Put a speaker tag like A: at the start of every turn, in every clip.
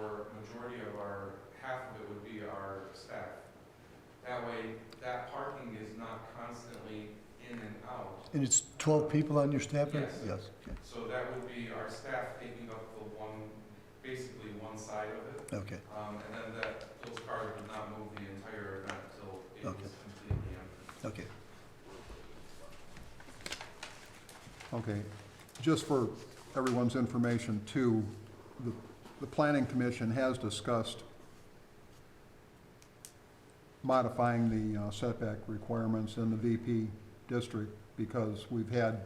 A: majority of our, half of it would be our staff. That way, that parking is not constantly in and out,
B: And it's 12 people on your staff? there?
A: Yes.
B: Yes, okay,
A: so that would be our staff taking up the one, basically one side of it.
B: okay.
A: Um, and then that, those cars would not move the entire event until it was
B: Okay.
A: completely empty.
B: Okay.
C: Okay, just for everyone's information too, the, the planning commission has discussed modifying the uh, setback requirements in the VP district because we've had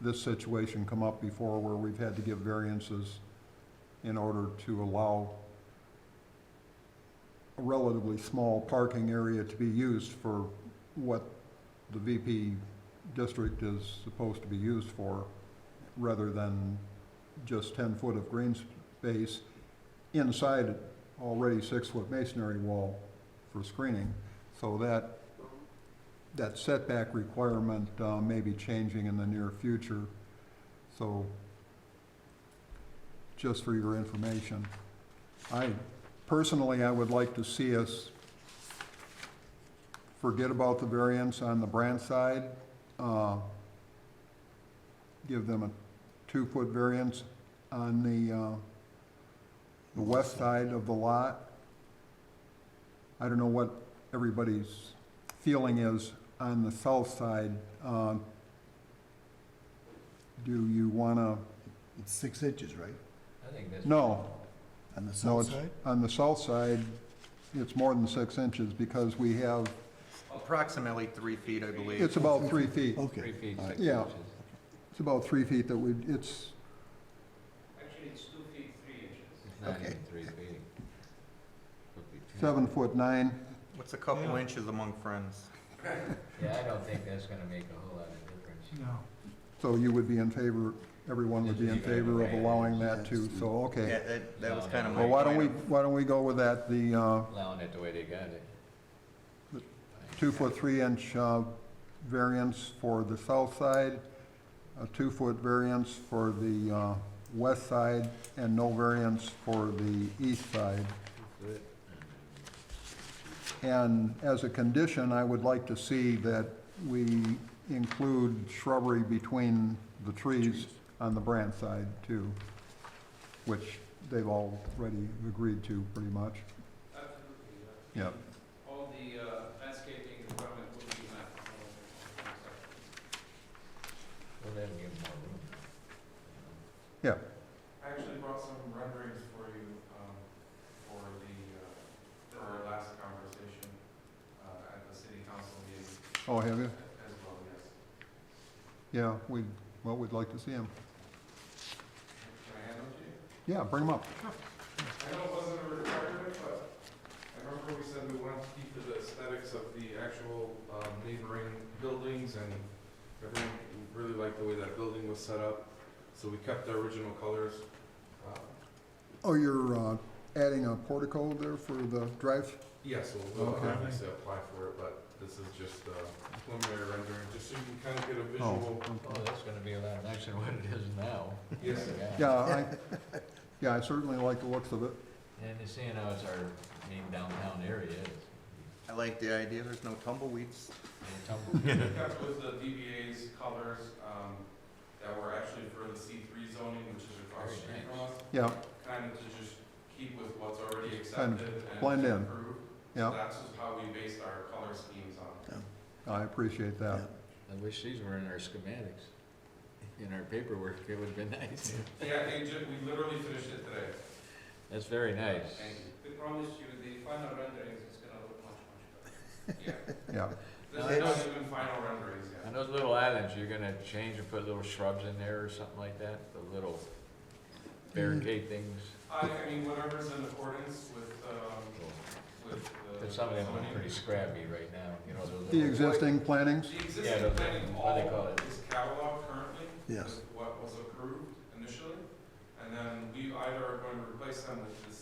C: this situation come up before where we've had to give variances in order to allow a relatively small parking area to be used for what the VP district is supposed to be used for, rather than just ten foot of green space inside already six foot masonry wall for screening. So that, that setback requirement, uh, may be changing in the near future. So, just for your information, I, personally, I would like to see us forget about the variance on the Brandt side, uh, give them a two-foot variance on the, uh, the west side of the lot. I don't know what everybody's feeling is on the south side. Uh, Do you wanna,
B: It's six inches, right?
D: I think that's.
C: no,
B: On the
C: No,
B: south
C: it's,
B: side?
C: on the south side, it's more than six inches because we have,
E: Approximately three feet, I believe.
C: it's about three feet.
D: Three
B: Okay.
D: feet,
B: all right.
D: six
C: Yeah.
D: inches.
C: It's about three feet that we, it's,
A: Actually, it's two feet, three inches.
D: It's not
B: Okay.
D: even three feet. Could be two.
C: seven foot nine.
E: What's a couple inches among friends?
D: Yeah, I don't think that's gonna make a whole lot of difference.
C: So you would be in favor, everyone would be in favor of allowing that too, so,
E: Yeah,
C: okay.
E: that, that
A: Um,
E: was kind of my.
C: Well, why don't we,
E: point.
C: why don't we go with that, the, uh,
D: Allowing it the way they got it.
C: two foot, three inch, uh, variance for the south side, a two foot variance for the, uh, west side, and no variance for the east side.
D: Good.
C: And as a condition, I would like to see that we include shrubbery between the trees on the Brandt side too, which they've already agreed to pretty much.
A: Absolutely, yeah.
C: Yeah.
A: All the uh, landscaping equipment will be met.
D: Well, that'll give 'em more room. you
A: I actually brought some renderings for you um, for the, uh, for our last conversation uh, at the city council meeting
C: Oh, have you?
A: as well, yes.
C: Yeah, we, well, we'd like to see them.
A: Can I hand them to you?
C: Yeah, bring them up.
A: I know it wasn't a requirement, but I remember we said we wanted to keep the aesthetics of the actual um, neighboring buildings, and everyone really liked the way that building was set up, so we kept the original colors. Uh,
C: Oh, you're, uh, adding a portico there for the drive?
A: Yeah, so we'll
C: Okay.
A: obviously apply for it, but this is just a preliminary rendering, just so you can kind of get a
C: Oh,
D: know.
A: visual.
D: Oh, that's gonna be a lot nicer than what it is now.
A: Yes,
C: Yeah, I, yeah, I certainly like the looks of it.
D: And you seeing how it's our main downtown area is.
E: I like the idea, there's no tumbleweeds.
D: It's tumble-
A: we kept with the DBA's colors um, that were actually for the C3 zoning, which is across the
D: Very
A: street
D: nice.
A: from us.
C: Yeah,
A: kind of to just keep with what's already
C: Kind of
A: accepted and
C: blend in.
A: approved.
C: Yeah.
A: That's just how we based our color schemes on.
C: I appreciate that.
D: I wish these were in our schematics. In our paperwork, it would've been nice.
A: Yeah, they ju, we literally finished it today.
D: That's very nice.
A: We promise you, the final renderings is gonna look much, much better. Yeah,
C: Yeah,
A: this is not even final renderings
D: On
A: yet.
D: those little islands, you're gonna change and put little shrubs in there or something like that, the little barricade things.
A: I, I mean, whatever's in accordance with, um, with the.
D: But some of them look pretty
A: zoning.
D: scrappy right now, you know, those
C: the
D: little.
C: existing plantings?
A: The
D: Yeah,
A: existing
D: those-
A: planning
D: what do they
A: all
D: call it?
A: is catalog currently.
B: Yes.
A: with What was approved initially, and then we either are going to replace them with the um,